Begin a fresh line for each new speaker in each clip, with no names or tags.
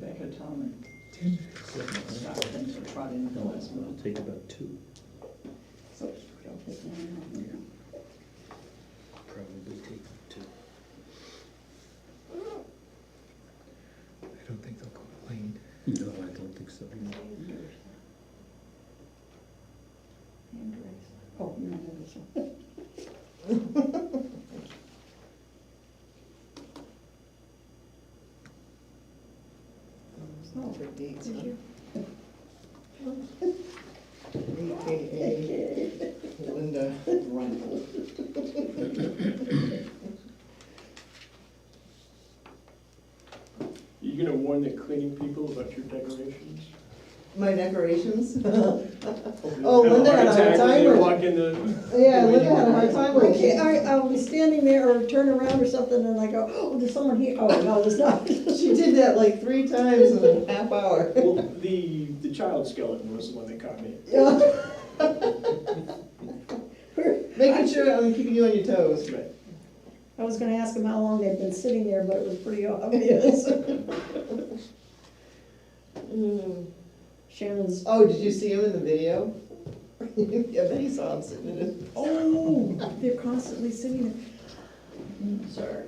common stock things were brought in the
No,
last
it'll
month.
take about two,
So don't put that in.
probably take two.
I don't think they'll complain.
No, I don't think so.
Anders. Anders. Oh, you know this one.
It's not for dates,
Did
huh?
you?
AKA Linda Rundle.
You gonna warn the cleaning people about your decorations?
My decorations?
Oh,
Linda had a hard time
When
with
you
it.
walk in the.
Yeah, Linda had a hard time
I
with
can't,
it.
I, I'll be standing there or turn around or something and I go, oh, there's someone here. Oh, no, there's not.
She did that like three times in a half hour.
Well, the, the child skeleton was the one that caught me.
Yeah,
I
Making sure I'm keeping you on your toes.
Right.
was gonna ask him how long they'd been sitting there, but it was pretty obvious.
Mm.
Shannon's,
Oh, did you see him in the video? I bet he saw him sitting in it.
oh, they're constantly sitting there.
Sorry.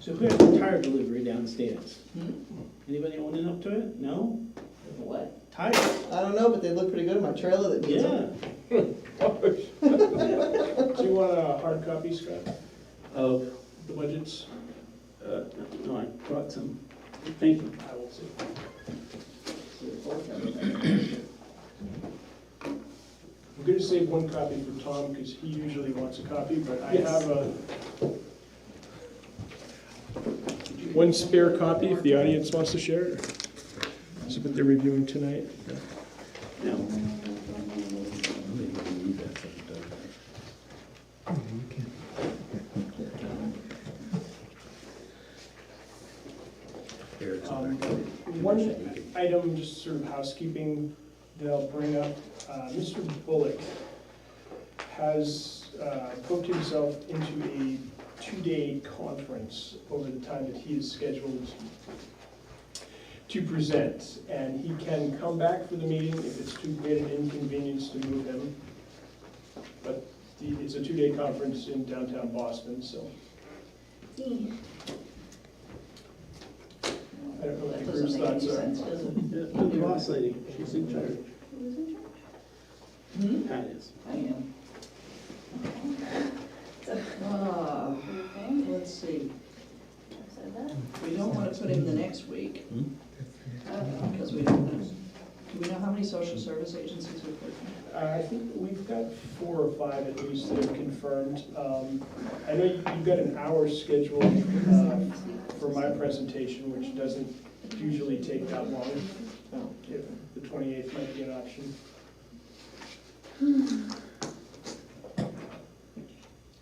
So who had the tire delivery downstairs?
Hmm?
Anybody owning up to it? No?
What?
Tire?
I don't know, but they look pretty good in my trailer that needs them.
Yeah.
Do you want a hard copy, Scott,
Oh,
the budgets?
uh, no, I brought some. Thank you.
I will see. I'm gonna save one copy for Tom, because he usually wants a copy, but I
Yes.
have a. One spare copy if the audience wants to share it. Something they're reviewing tonight.
No.
Maybe we can leave that for the dog.
Oh, you can-
Eric's
Um,
back.
One item, just sort of housekeeping, that I'll bring up, uh, Mr. Bullock has uh, booked himself into a two-day conference over the time that he is scheduled to present, and he can come back for the meeting if it's too great an inconvenience to move him. But the- it's a two-day conference in downtown Boston, so I don't know what
That
the
doesn't
group's
make any
thoughts are.
sense, does it?
Yeah, I'm the boss lady. She's in charge.
Hmm?
Pat is.
I am.
Ah,
Let's see, we don't wanna put him the next week,
that's the next one.
because we don't know. Do we know how many social service agencies we put?
Uh, I think we've got four or five at least that are confirmed. Um, I know you- you've got an hour scheduled uh, for my presentation, which doesn't usually take that long.
oh.
Yeah, The 28th might be an option.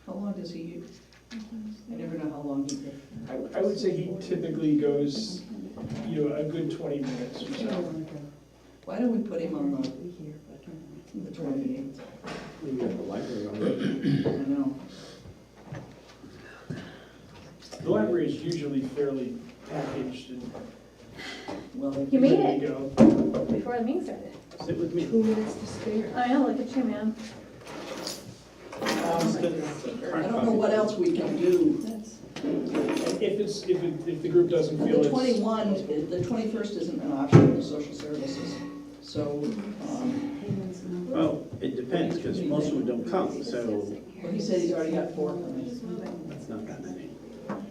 How long does he use?
Mm-hmm.
I never know how long he takes.
I- I would say he typically goes, you know, a good 20 minutes or so.
Why don't we put him on the, the twenty-eighth?
We got the library already.
I know.
The library is usually fairly packaged and
Well, they-
You made
ready
it
to go.
before the meeting started.
Sit with me.
Two minutes to spare.
I know, look at you, man.
Just a- a
I
hard
don't know
copy.
what else we can do.
If it's, if it, if the group doesn't feel
The
it's.
twenty-one, the twenty-first isn't an option for social services, so, um,
Well, it depends, because most of them don't come, so
well, he said he's already got four coming.
that's not that many.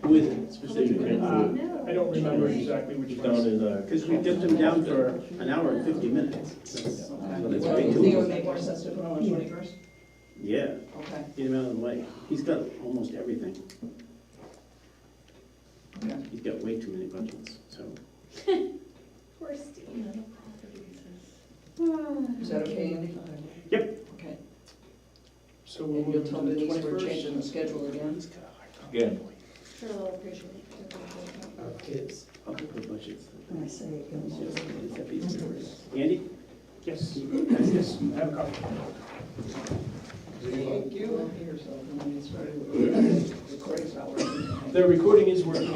With specifically,
Uh, I don't remember exactly which ones.
because we dipped them down for an hour and fifty minutes. That's- But it's
Well,
way
you
too
think it
long.
would make more sense to put him on the twenty-first?
Yeah,
Okay.
get him out of the way. He's got almost everything.
Yeah.
He's got way too many budgets, so.
Poor Steve.
Is that okay, Andy?
Yep.
Okay,
So we'll
and you'll
move to
tell
the
Denise we're
21st.
changing the schedule again?
Again.
Our kids. I'll put the budgets.
I say
It's just- it's that piece of work. Andy?
Yes, yes, I have a copy.
Thank you.
Here's, uh, when we started, recording's not working.
The recording is working